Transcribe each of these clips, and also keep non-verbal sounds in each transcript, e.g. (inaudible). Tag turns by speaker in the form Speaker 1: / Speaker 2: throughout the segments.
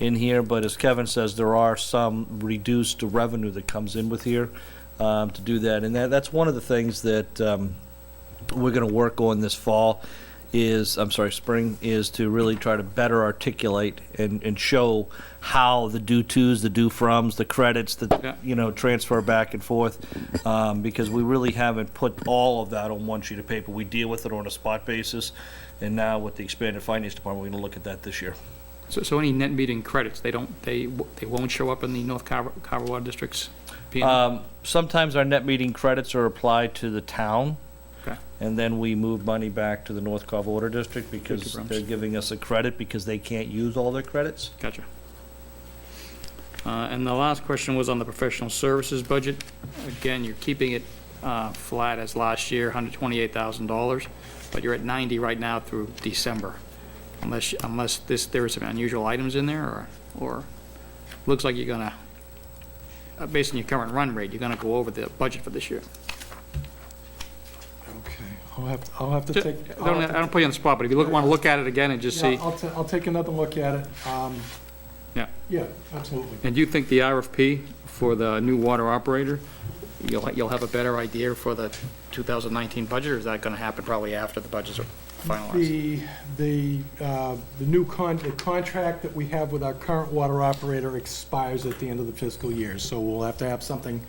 Speaker 1: in here, but as Kevin says, there are some reduced revenue that comes in with here um, to do that. And that, that's one of the things that um, we're going to work on this fall is, I'm sorry, spring, is to really try to better articulate and, and show how the due tos, the due froms, the credits,
Speaker 2: Yeah.
Speaker 1: the, you know, transfer back and forth, um, because we really haven't put all of that on one sheet of paper. We deal with it on a spot basis, and now with the expanded finance department, we're going to look at that this year.
Speaker 2: So, so any net metering credits, they don't, they, w- they won't show up in the North Carver, Carver Water District's P and
Speaker 1: Um, Sometimes our net meeting credits are applied to the town.
Speaker 2: Okay.
Speaker 1: And then we move money back to the North Carver Water District because
Speaker 2: Brahms.
Speaker 1: they're giving us a credit because they can't use all their credits.
Speaker 2: Gotcha. Uh, And the last question was on the professional services budget. Again, you're keeping it uh, flat as last year, $128,000, but you're at 90 right now through December, unless, unless this, there are some unusual items in there, or, or, looks like you're gonna, uh, based on your current run rate, you're gonna go over the budget for this year.
Speaker 3: Okay, I'll have, to- I'll have to
Speaker 2: Ju-
Speaker 3: take.
Speaker 2: I don't, I don't put you on the spot, but if you look, want to look at it again and just see,
Speaker 3: Yeah, I'll, ta- I'll take another look at it. Um,
Speaker 2: Yeah.
Speaker 3: Yeah, absolutely.
Speaker 2: and do you think the RFP for the new water operator, you'll, you'll have a better idea for the 2019 budget, or is that going to happen probably after the budgets are finalized?
Speaker 3: The, the, uh, the new con, the contract that we have with our current water operator expires at the end of the fiscal year, so we'll have to have something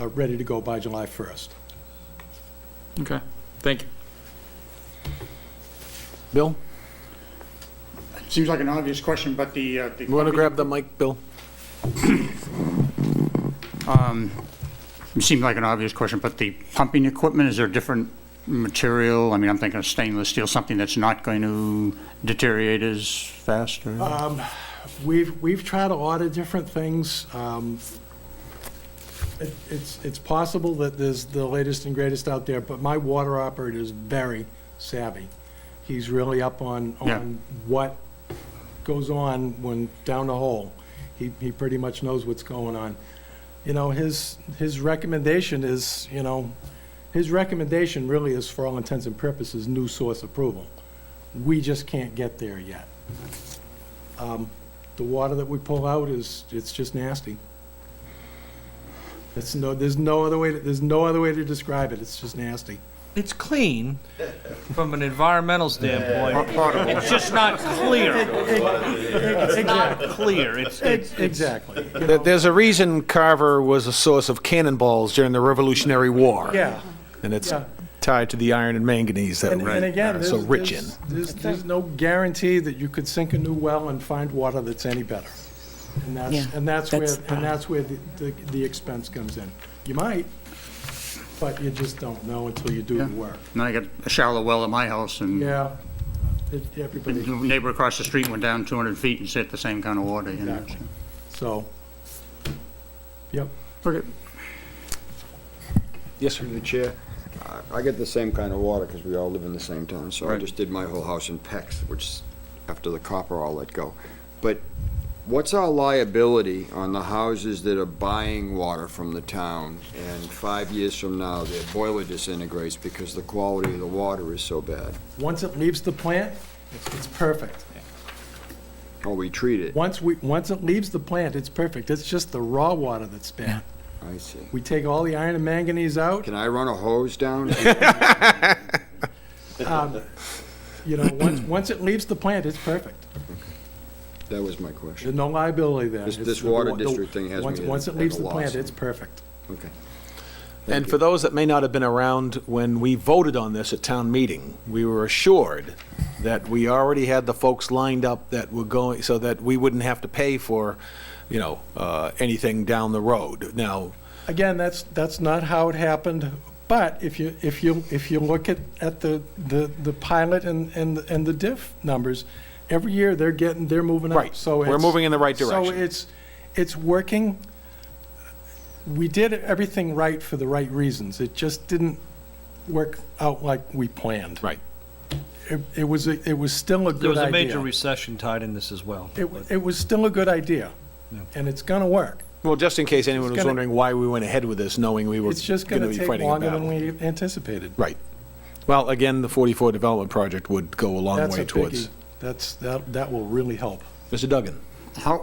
Speaker 3: uh, ready to go by July 1st.
Speaker 2: Okay, thank you.
Speaker 4: Bill,
Speaker 5: Seems like an obvious question, but the. uh, the
Speaker 4: you want to grab the mic, Bill?
Speaker 5: It seemed Um, like an obvious question, but the pumping equipment, is there different material? I mean, I'm thinking of stainless steel, something that's not going to deteriorate as fast or?
Speaker 3: We've, we've tried a lot of different things. Um, it- It's, it's possible that there's the latest and greatest out there, but my water operator is very savvy. He's really up on,
Speaker 5: Yeah.
Speaker 3: on what goes on when down the hole. He, he pretty much knows what's going on. You know, his, his recommendation is, you know, his recommendation really is, for all intents and purposes, new source approval. We just can't get there yet. Um, The water that we pull out is, it's just nasty. It's no, there's no other way, to- there's no other way to describe it, it's just nasty.
Speaker 1: It's clean from an environmental standpoint.
Speaker 5: Potable.
Speaker 1: It's just not clear. It's not clear. It's, it's,
Speaker 3: Exactly.
Speaker 4: There- There's a reason Carver was a source of cannonballs during the Revolutionary War.
Speaker 3: Yeah.
Speaker 4: And it's
Speaker 3: Yeah.
Speaker 4: tied to the iron and manganese that
Speaker 3: And and again,
Speaker 4: we're
Speaker 3: there's,
Speaker 4: so rich in.
Speaker 3: there's- there's, there's no guarantee that you could sink a new well and find water that's any better. And that's,
Speaker 6: Yeah,
Speaker 3: and that's where,
Speaker 6: that's the
Speaker 3: and that's where the, the- the expense comes in. You might, but you just don't know until you do the
Speaker 5: Yeah.
Speaker 3: work.
Speaker 5: Now I got a shallow well at my house and the
Speaker 3: Yeah, It- everybody,
Speaker 5: neighbor across the street went down 200 feet and said the same kind of water, you know?
Speaker 3: Exactly. so, yep.
Speaker 5: Okay.
Speaker 4: Yes, sir.
Speaker 7: Through the chair, I- I get the same kind of water because we all live in the same town, so I
Speaker 5: Right.
Speaker 7: just did my whole house in Pex, which, after the copper, I'll let go. But what's our liability on the houses that are buying water from the town, and five years from now, their boiler disintegrates because the quality of the water is so bad?
Speaker 3: Once it leaves the plant, it's- it's perfect.
Speaker 7: Or we treat it?
Speaker 3: Once we, once it leaves the plant, it's perfect. It's just the raw water that's bad.
Speaker 7: I see.
Speaker 3: We take all the iron and manganese out,
Speaker 7: Can I run a hose down?
Speaker 3: you know,
Speaker 7: (clears throat)
Speaker 3: once, once it leaves the plant, it's perfect.
Speaker 7: That was my question.
Speaker 3: There's no liability there.
Speaker 7: This-
Speaker 3: It's
Speaker 7: this
Speaker 3: the
Speaker 7: water
Speaker 3: wa- the-
Speaker 7: district thing has
Speaker 3: once-
Speaker 7: me at-
Speaker 3: Once it
Speaker 7: at
Speaker 3: leaves
Speaker 7: a
Speaker 3: the plant,
Speaker 7: loss.
Speaker 3: it's perfect.
Speaker 7: Okay.
Speaker 4: And for those that may not have been around when we voted on this at town meeting, we were assured that we already had the folks lined up that were going, so that we wouldn't have to pay for, you know, uh, anything down the road. Now,
Speaker 3: Again, that's, that's not how it happened, but if you, if you, if you look at, at the, the, the pilot and, and, and the diff numbers, every year they're getting, they're moving up.
Speaker 4: Right.
Speaker 3: So
Speaker 4: We're
Speaker 3: it's-
Speaker 4: moving in the right
Speaker 3: So
Speaker 4: direction.
Speaker 3: it's, it's working. We did everything right for the right reasons. It just didn't work out like we planned.
Speaker 4: right,
Speaker 3: It, it was, a- it was still a
Speaker 1: there
Speaker 3: good
Speaker 1: was a major
Speaker 3: idea.
Speaker 1: recession tied in this as well.
Speaker 3: It, wa- it was still a good idea, and it's gonna work.
Speaker 4: Well, just in case anyone
Speaker 3: It's
Speaker 4: was
Speaker 3: gonna-
Speaker 4: wondering why we went ahead with this, knowing we were
Speaker 3: It's just
Speaker 4: going to
Speaker 3: gonna
Speaker 4: be
Speaker 3: take
Speaker 4: fighting a
Speaker 3: longer than
Speaker 4: battle.
Speaker 3: we anticipated.
Speaker 4: Right. Well, again, the 44 development project would go a long
Speaker 3: That's
Speaker 4: way
Speaker 3: a
Speaker 4: towards.
Speaker 3: biggie. That's, that, that will really help.
Speaker 4: Mr. Duggan?
Speaker 5: How,